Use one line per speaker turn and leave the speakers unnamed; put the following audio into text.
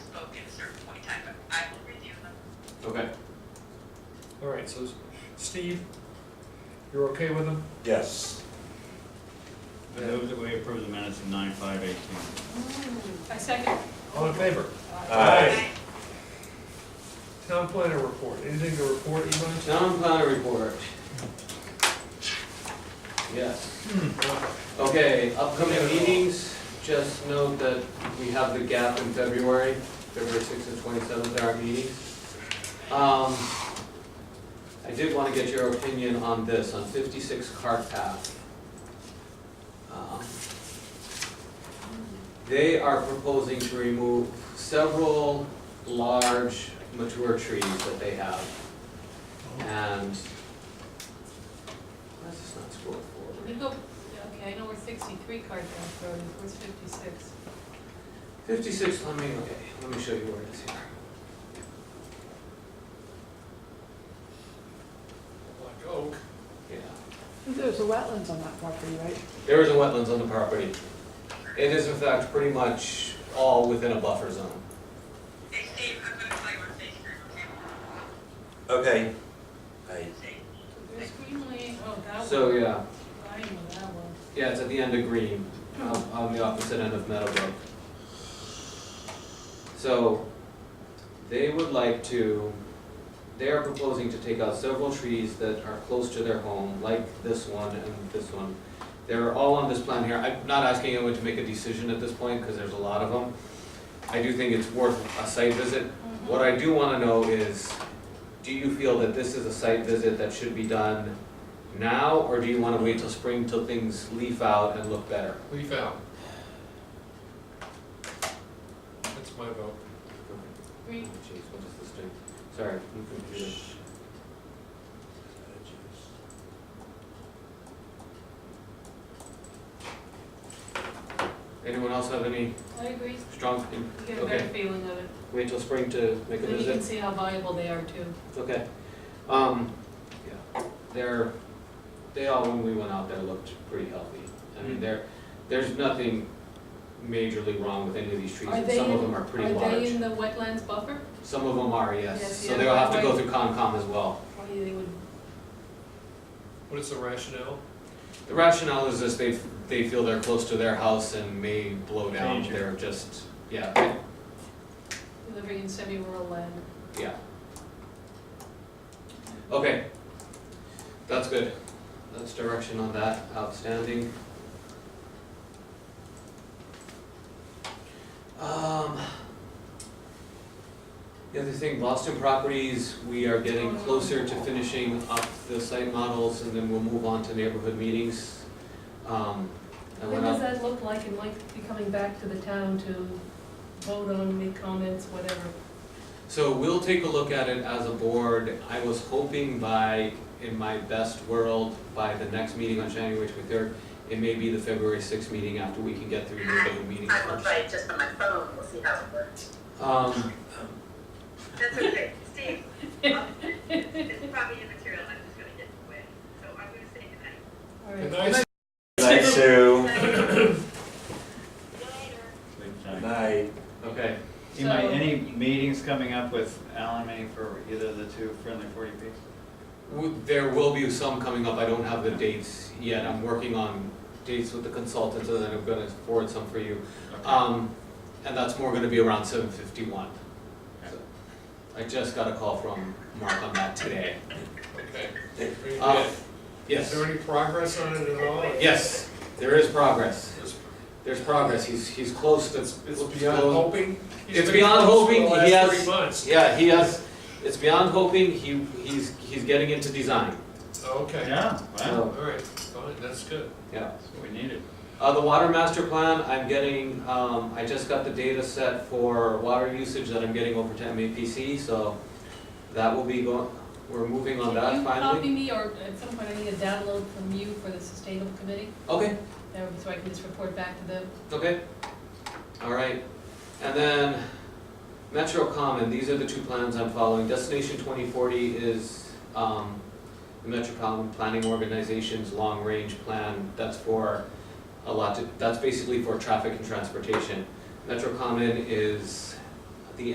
right, so Steve, you're okay with them?
Yes.
I move that we approve the minutes of nine five eighteen.
I second.
All in favor?
Aye.
Town planner report, anything to report, Eli?
Town planner report. Yes. Okay, upcoming meetings, just note that we have the gap in February, February sixth and twenty-seventh are our meetings. Um, I did wanna get your opinion on this, on fifty-six Cart Path. Um, They are proposing to remove several large mature trees that they have. And, why is this not scrolled forward?
We go, yeah, okay, I know we're sixty-three Carfax Road, where's fifty-six?
Fifty-six, let me, okay, let me show you where it is here.
Like oak.
Yeah,
There's a wetlands on that property, right?
there is a wetlands on the property. It is in fact pretty much all within a buffer zone.
Hey Steve, I'm gonna play with Facebook,
Okay. I
okay?
There's Green Lane, oh, that one.
So, yeah,
I know that one.
yeah, it's at the end of Green, um, on the opposite end of Meadowbrook. So, they would like to, they are proposing to take out several trees that are close to their home, like this one and this one. They're all on this plan here. I'm not asking anyone to make a decision at this point, because there's a lot of them. I do think it's worth a site visit. What I do wanna know is, do you feel that this is a site visit that should be done now, or do you wanna wait till spring till things leaf out and look better?
We found. That's my vote.
Green,
Jeez, what is this thing? Sorry, I'm confused. Anyone else have any
I agree,
strong,
you get a better
okay,
feeling of it.
wait till spring to make a
Then you can
visit?
see how viable they are too.
Okay. Um, yeah, they're, they all, when we went out there, looked pretty healthy. I
Mm.
mean, there, there's nothing majorly wrong with any of these trees,
Are
and
they
some of
in-
them are pretty large.
Are they in the wetlands buffer?
Some of them are,
Yes,
yes, so
yeah,
they'll have to go
right.
through Concom as well.
Why they would,
What is the rationale?
The rationale is this, they, they feel they're close to their house and may blow down,
Change it.
they're just, yeah,
living in semi-rural land.
yeah. Okay, that's good, that's direction on that, outstanding. Um, the other thing, Boston Properties, we are getting closer to finishing up the site models and then we'll move on to neighborhood meetings. Um, I
What
went
does
out,
that look like and like be coming back to the town to vote on, make comments, whatever?
So we'll take a look at it as a board. I was hoping by, in my best world, by the next meeting on January twenty-third, it may be the February sixth meeting after we can get through the other meetings
Mm-hmm. I will
first.
try it just on my phone, we'll see how it works.
Um,
That's okay, Steve, um, it's probably immaterial, I'm just gonna get away, so I'm gonna say goodnight.
All right.
Good night.
Night, Sue.
Later.
Good Night.
okay,
Eli,
So-
any meetings coming up with Alan May for either of the two friendly forty Bs?
W- there will be some coming up. I don't have the dates yet. I'm working on dates with the consultants and then I'm gonna forward some for you. Um, and that's more gonna be around seven fifty-one. I just got a call from Mark on that today.
Okay.
Um, yes.
Is there any progress on it at all?
Yes, there is progress.
It's
There's progress. He's, he's close to.
it's beyond hoping? He's
It's
been
beyond
close for
hoping,
the
he
last
has-
three months.
Yeah, he has, it's beyond hoping. He, he's, he's getting into design.
Okay,
Yeah, wow,
all right, fine, that's good.
Yeah.
that's what we needed.
Uh, the water master plan, I'm getting, um, I just got the data set for water usage that I'm getting over to MAPC, so that will be going, we're moving on that finally.
Can you copy me, or at some point I need a download from you for the sustainable committee,
Okay,
That would- so I can just report back to them?
okay. All right. And then Metro Common, these are the two plans I'm following. Destination twenty forty is, um, the Metropolitan Planning Organization's long-range plan. That's for a lot, to- that's basically for traffic and transportation. Metro Common is